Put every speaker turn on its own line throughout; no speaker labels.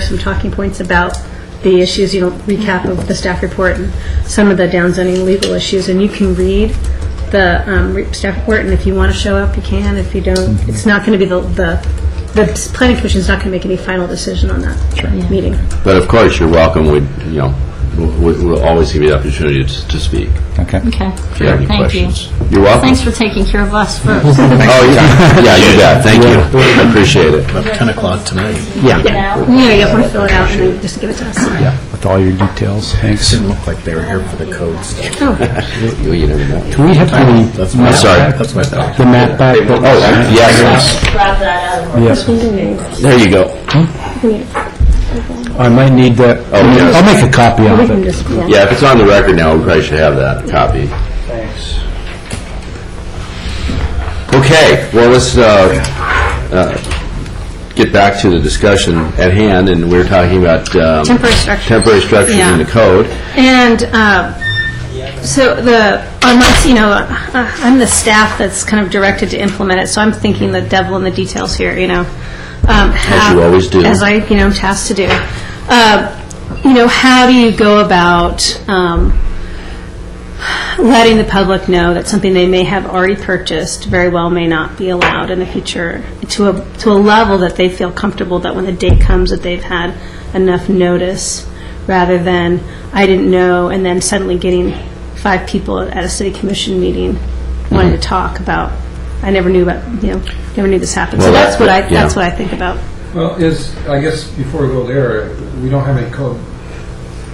some talking points about the issues, you know, recap of the staff report and some of the downzoning legal issues, and you can read the um, re- staff report, and if you want to show up, you can, if you don't, it's not going to be the, the, the s- planning commission's not going to make any final decision on that meeting.
But of course, you're welcome, we, you know, we- we'll always give you the opportunity to to speak
Okay.
Okay.
if you have any
Thank you.
questions. You're welcome.
Thanks for taking care of us first.
Oh, yeah, yeah, you bet, thank you, I appreciate it.
10 o'clock tonight.
Yeah,
Yeah, you want to fill it out and then just give it to us.
with all your details, thanks.
Didn't look like they were here for the code stuff.
You- you never know.
Do we have the
That's my,
I'm sorry.
that's my thought.
the map back?
Oh, I- yes,
Yes,
there you go.
I might need that.
Oh, yes.
I'll make a copy
We
of
can
it.
just, yeah.
Yeah, if it's on the record now, we probably should have that copy. Thanks. Okay, well, let's uh, uh, get back to the discussion at hand, and we're talking about... um,
Temporary structures.
Temporary structures in the
Yeah.
code.
And uh, so the, unless, you know, uh, I'm the staff that's kind of directed to implement it, so I'm thinking the devil in the details here, you know. As
you always do.
As I, you know, am tasked to do. Uh, You know, how do you go about um, letting the public know that something they may have already purchased very well may not be allowed in the future to a, to a level that they feel comfortable that when the day comes that they've had enough notice rather than, I didn't know, and then suddenly getting five people at a city commission meeting wanting to talk about, I never knew about, you know, never knew this happened. So
Well, that-
that's what I,
yeah.
that's what I think about.
Well, is, I guess, before we go there, we don't have any code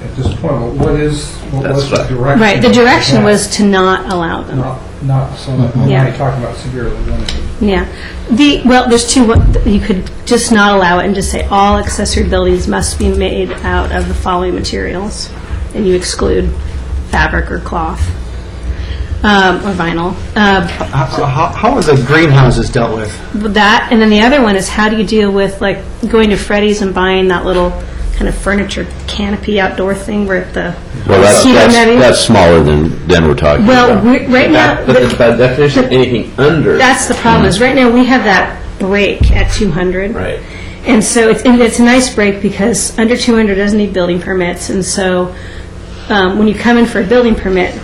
at this point. What- What is, what was the
That's right.
direction?
Right, the direction
Yeah.
was to not allow them.
Not, not, so we're
Yeah.
only talking about severely limited.
Yeah. The, well, there's two, one- you could just not allow it and just say, all accessory buildings must be made out of the following materials, and you exclude fabric or cloth, um, or vinyl. Uh,
How how are the greenhouses dealt with?
That, and then the other one is, how do you deal with, like, going to Freddy's and buying that little kind of furniture canopy outdoor thing where the...
Well, that's,
See what I
that's
mean?
that's smaller than, than we're talking
Well,
about.
we- right now...
But
the-
it's by definition, anything under...
That's the problem,
Mm-hmm.
is right now, we have that break at 200.
Right.
And so, it's, and it's a nice break, because under 200 doesn't need building permits, and so, um, when you come in for a building permit,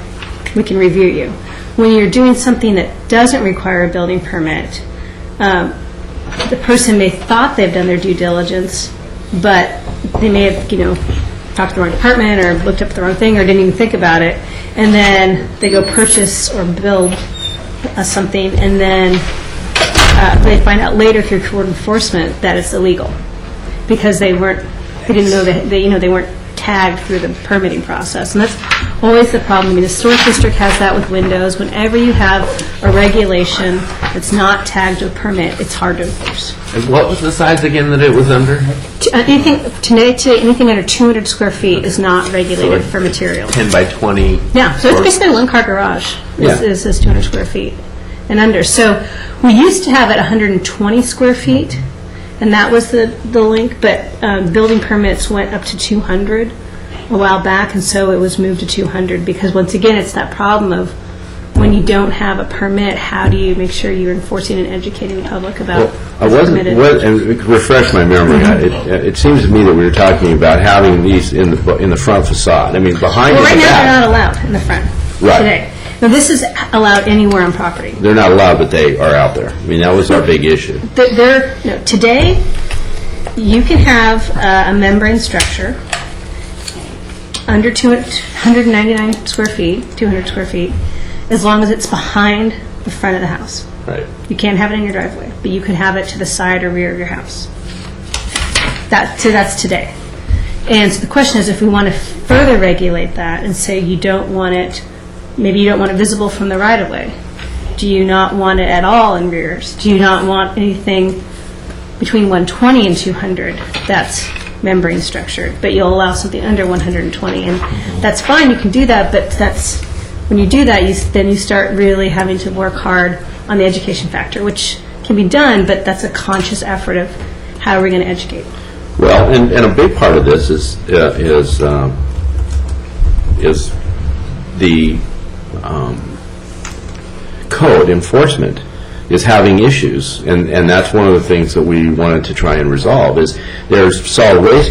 we can review you. When you're doing something that doesn't require a building permit, um, the person may thought they've done their due diligence, but they may have, you know, talked to the wrong department, or looked up the wrong thing, or didn't even think about it, and then they go purchase or build uh, something, and then uh, they find out later through court enforcement that it's illegal, because they weren't, they didn't know, that- they, you know, they weren't tagged through the permitting process. And that's always the problem. I mean, the historic district has that with windows. Whenever you have a regulation that's not tagged to a permit, it's hard to enforce.
And What was the size again that it was under?
T- uh, Anything, today, today, anything under 200 square feet is not regulated for material.
10 by 20?
Yeah, so it's
Or-
basically a one-car garage. This
Yeah.
is, is 200 square feet and under. So we used to have it 120 square feet, and that was the, the link, but um, building permits went up to 200 a while back, and so it was moved to 200, because once again, it's that problem of when you don't have a permit, how do you make sure you're enforcing and educating the public about
I
what's
wasn't,
permitted?
what- and refresh my memory, I- it it seems to me that we were talking about having these in the, bu- in the front facade, I mean, behind
Well,
is
right
the
now, they're
back.
not allowed in the front
Right.
today. Now, this is allowed anywhere on property.
They're not allowed, but they are out there. I mean, that was our big issue.
Th- There, no, today, you can have uh, a membrane structure under 299 square feet, 200 square feet, as long as it's behind the front of the house.
Right.
You can't have it in your driveway, but you can have it to the side or rear of your house. That, so that's today. And so the question is, if we want to further regulate that and say you don't want it, maybe you don't want it visible from the right-of-way, do you not want it at all in rears? Do you not want anything between 120 and 200 that's membrane structured, but you'll allow something under 120? And that's fine, you can do that, but that's, when you do that, you, s- then you start really having to work hard on the education factor, which can be done, but that's a conscious effort of how are we going to educate?
Well, and, and a big part of this is, uh, is, um, is the um, code enforcement is having issues, and, and that's one of the things that we wanted to try and resolve, is there's solid waste